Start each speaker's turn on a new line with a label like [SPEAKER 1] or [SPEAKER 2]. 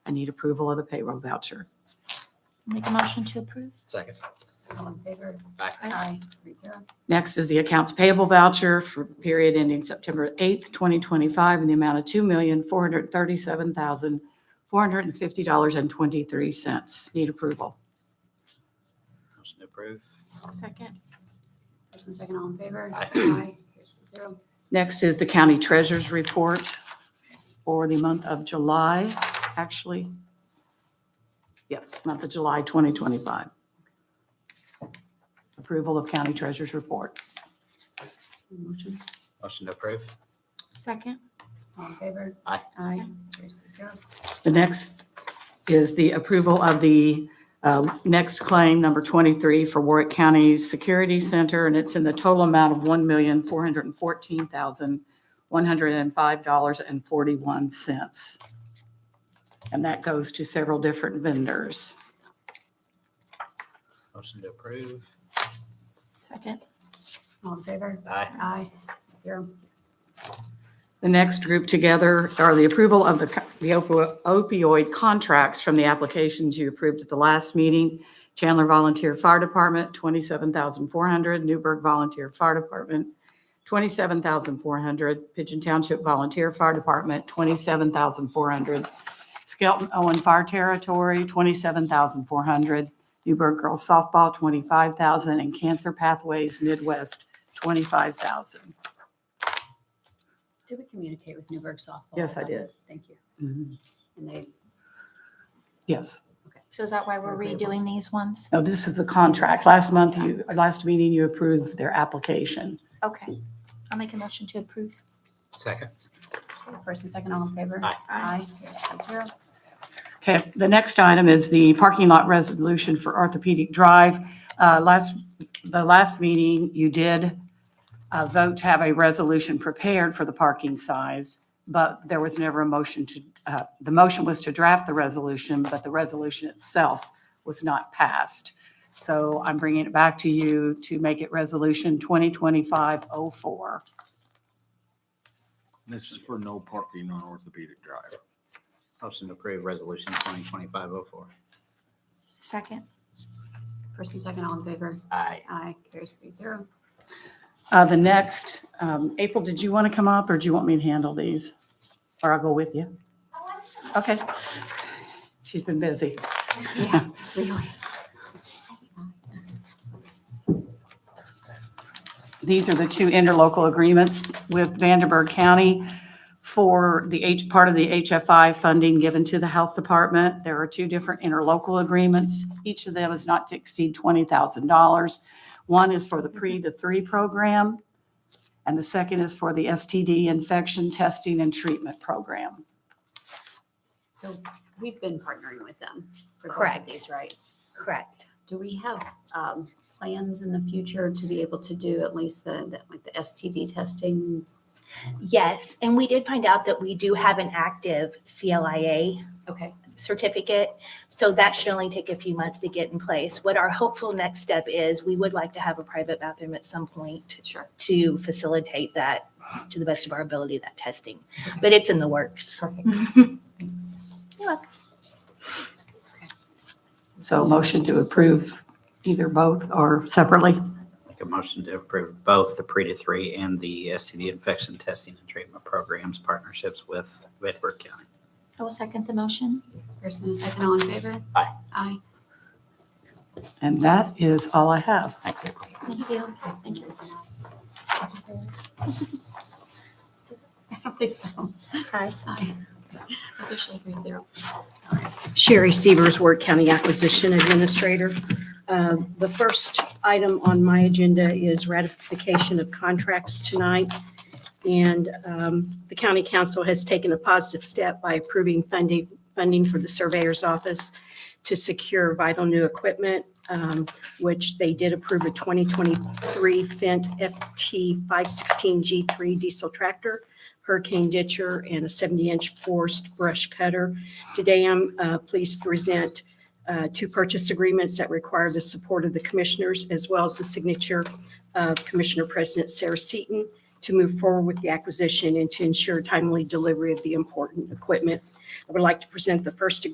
[SPEAKER 1] I need approval of the payroll voucher.
[SPEAKER 2] Make a motion to approve.
[SPEAKER 3] Second.
[SPEAKER 4] All in favor?
[SPEAKER 3] Aye.
[SPEAKER 4] Aye. Three zero.
[SPEAKER 1] Next is the accounts payable voucher for period ending September 8th, 2025, in the amount of $2,437,450.23. Need approval.
[SPEAKER 3] Motion to approve.
[SPEAKER 2] Second.
[SPEAKER 4] First and second, all in favor?
[SPEAKER 3] Aye.
[SPEAKER 4] Aye. Here's three zero.
[SPEAKER 1] Next is the county treasurer's report for the month of July, actually. Yes, month of July 2025. Approval of county treasurer's report.
[SPEAKER 4] Motion,
[SPEAKER 3] Motion to approve.
[SPEAKER 2] Second.
[SPEAKER 4] all in favor?
[SPEAKER 3] Aye.
[SPEAKER 4] Aye. Here's three zero.
[SPEAKER 1] The next is the approval of the um, next claim, number 23, for Warwick County Security Center, and it's in the total amount of $1,414,105.41. And that goes to several different vendors.
[SPEAKER 3] Motion to approve.
[SPEAKER 2] Second.
[SPEAKER 4] All in favor?
[SPEAKER 3] Aye.
[SPEAKER 4] Aye. Zero.
[SPEAKER 1] The next group together are the approval of the co- the opo- opioid contracts from the applications you approved at the last meeting. Chandler Volunteer Fire Department, 27400 Newburgh Volunteer Fire Department, 27400 Pigeon Township Volunteer Fire Department, 27400 Skelton Owen Fire Territory, 27400 Newburgh Girls Softball, 25000 and Cancer Pathways Midwest, 25000
[SPEAKER 4] Did we communicate with Newburgh softball?
[SPEAKER 1] Yes, I
[SPEAKER 4] about
[SPEAKER 1] did.
[SPEAKER 4] that? Thank you.
[SPEAKER 1] Mhm.
[SPEAKER 4] And they,
[SPEAKER 1] Yes.
[SPEAKER 2] So is that why we're redoing these ones?
[SPEAKER 1] No, this is the contract. Last month, you, last meeting, you approved their application.
[SPEAKER 2] Okay. I'll make a motion to approve.
[SPEAKER 3] Second.
[SPEAKER 4] first and second, all in favor?
[SPEAKER 3] Aye.
[SPEAKER 4] Aye. Here's three zero.
[SPEAKER 1] Okay, the next item is the parking lot resolution for orthopedic drive. Uh, Last, the last meeting, you did uh, vote to have a resolution prepared for the parking size, but there was never a motion to, uh, the motion was to draft the resolution, but the resolution itself was not passed. So I'm bringing it back to you to make it Resolution 2025-04.
[SPEAKER 5] This is for no parking on orthopedic drive.
[SPEAKER 3] Motion to approve resolution twenty twenty-five oh four.
[SPEAKER 2] Second.
[SPEAKER 4] First and second, all in favor?
[SPEAKER 3] Aye.
[SPEAKER 4] Aye. Here's three zero.
[SPEAKER 1] Uh, The next, um, April, did you want to come up or do you want me to handle these? Or I'll go with you? Okay. She's been busy.
[SPEAKER 4] Yeah, really.
[SPEAKER 1] These are the two interlocal agreements with Vanderburgh County for the H, part of the HFI funding given to the Health Department. There are two different interlocal agreements. Each of them is not to exceed $20,000. One is for the pre to three program, and the second is for the STD infection testing and treatment program.
[SPEAKER 4] So we've been partnering with them for both of
[SPEAKER 2] Correct.
[SPEAKER 4] these, right?
[SPEAKER 2] Correct.
[SPEAKER 4] Do we have um, plans in the future to be able to do at least the, the- like the STD testing?
[SPEAKER 6] Yes, and we did find out that we do have an active CLIA
[SPEAKER 4] Okay,
[SPEAKER 6] certificate, so that should only take a few months to get in place. What our hopeful next step is, we would like to have a private bathroom at some point
[SPEAKER 4] sure.
[SPEAKER 6] to facilitate that, to the best of our ability, that testing. But it's in the works.
[SPEAKER 4] Perfect. Thanks.
[SPEAKER 6] You're welcome.
[SPEAKER 1] So a motion to approve either both or separately.
[SPEAKER 3] Make a motion to approve both the pre to three and the STD infection testing and treatment programs partnerships with Bedford County.
[SPEAKER 2] I will second the motion.
[SPEAKER 4] First and a second, all in favor?
[SPEAKER 3] Aye.
[SPEAKER 4] Aye.
[SPEAKER 1] And that is all I have.
[SPEAKER 3] Thanks, April.
[SPEAKER 2] Thank you.
[SPEAKER 4] Thank you. I don't think so.
[SPEAKER 6] Aye.
[SPEAKER 4] Aye. Officially three zero.
[SPEAKER 7] Sherry Severs, Ward County Acquisition Administrator. Uh, The first item on my agenda is ratification of contracts tonight. And um, the county council has taken a positive step by approving funding, funding for the surveyor's office to secure vital new equipment, um, which they did approve a 2023 Fendt FT 516G3 diesel tractor, hurricane ditcher, and a 70-inch forced brush cutter. Today, I'm uh, pleased to present uh, two purchase agreements that require the support of the commissioners as well as the signature of Commissioner President Sarah Seaton to move forward with the acquisition and to ensure timely delivery of the important equipment. I would like to present the first agreement